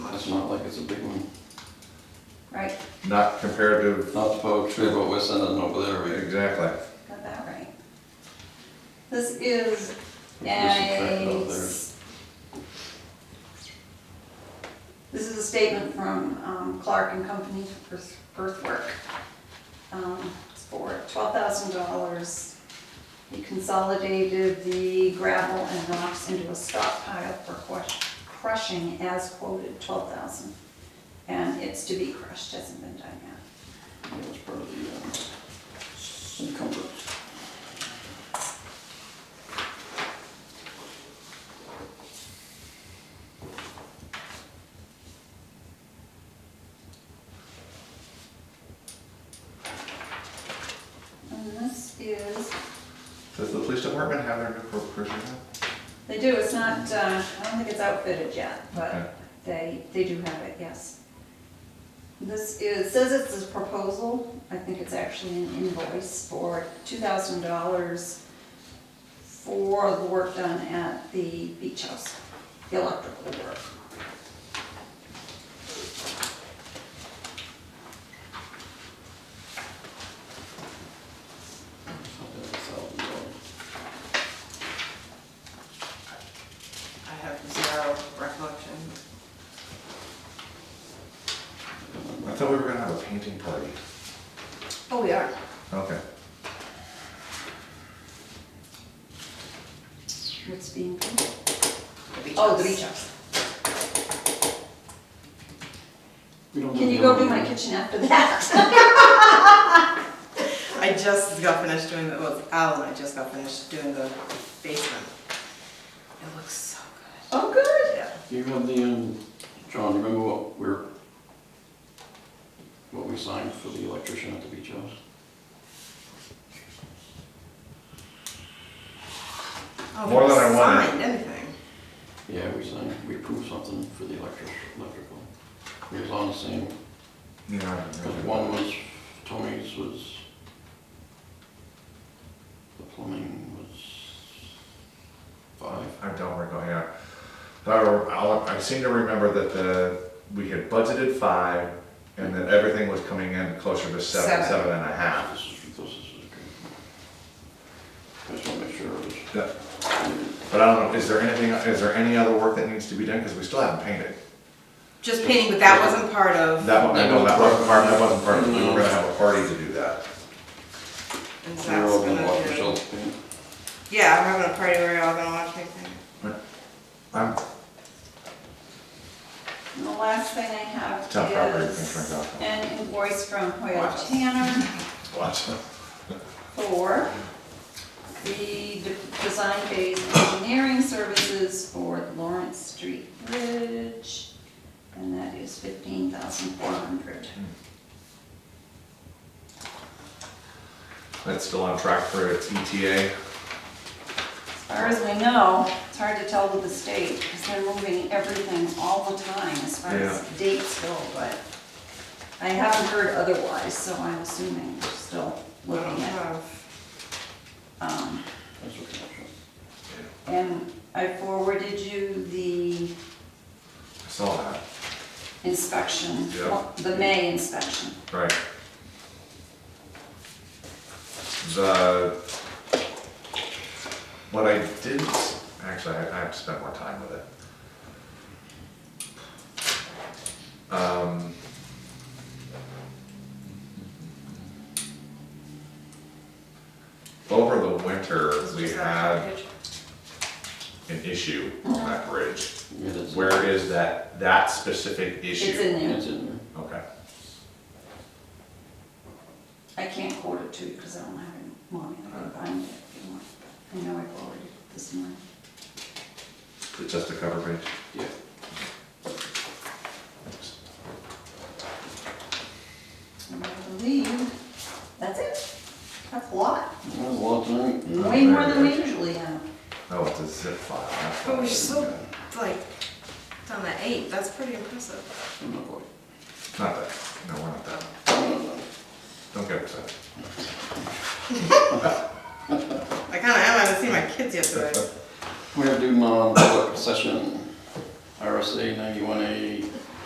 it's not like it's a big one. right, not comparative, Not to Bowtree, but we're sending over there, right? exactly. got that right. This is We subtract a. out there. s- This is a statement from um, Clark and Company for earth- earthwork. Um, It's for twelve thousand dollars. He consolidated the gravel and rocks into a stockpile for crush- crushing as quoted, twelve thousand. And it's to be crushed, hasn't been done yet. Yeah, it's part of the, um, encumbrance. And this is Does the police department have their new corp cruiser yet? They do, it's not, uh, I don't think it's outfitted yet, Okay. but they, they do have it, yes. This is, it says it's a proposal, I think it's actually an invoice for two thousand dollars for the work done at the beach house, the electrical work. I have zero recollection. I thought we were gonna have a painting party. Oh, we are. Okay. It's being, beach oh, house. the beach house. We don't Can do you go the- do my kitchen after that? I just got finished doing the, well, Al and I just got finished doing the basement. It looks so good. Oh, good. Yeah. You have the, um, John, remember what we're, what we signed for the electrician at the beach house? Oh, More than I wanted. Signed anything. Yeah, we signed, we approved something for the electric, electrical. It was on the same, Yeah. I don't because really- one was, Tony's was, the plumbing was five. I don't recall, yeah. However, I'll, I seem to remember that the, we had budgeted five, and that everything was coming in closer to seven, Seven. seven and a half. This is, this is okay. I just wanna make sure it was. That- But I don't know, is there anything, is there any other work that needs to be done, because we still haven't painted? Just painting, but that wasn't part of, That one, I know that wasn't part, that wasn't part, of it. we were gonna have a party to do that. and Zach's They're all gonna gonna watch do. themselves paint. Yeah, I'm having a party where we're all gonna watch me paint. I'm And the last thing I have town property, is things like that. an invoice from Hoyle Watch. Tanner Watch. for the de- design phase engineering services for Lawrence Street Bridge, and that is fifteen thousand four hundred. That's still on track for its E ETA. As far as we know, it's hard to tell with the state, because they're moving everything all the time as far as dates go, but I haven't heard otherwise, so I'm assuming we're still I don't looking at, have. um, That's what I'm sure. And I forwarded you the I saw that. inspection, Yeah. the May inspection. Right. The, what I did, actually, I I have to spend more time with it. Um, Over the winter, we had Just that package. an issue on that bridge. Yeah, that's- Where is that, that specific It's issue? in there. It's in there. Okay, I can't quote it to you because I don't have it, mommy, I can find it if you want. I know I forwarded it this morning. Is it just a cover page? Yeah. And I believe, that's it. That's a lot. That was a lot tonight. Way more than we usually have. Oh, it's a zip file. that's But all we're it is, still, yeah. Oh, like, down to eight, that's pretty impressive. I'm not quite. Not that, no, we're not that, don't get upset. I kinda am, I haven't seen my kids yet today. We have to do non-public session, RSA ninety-one A,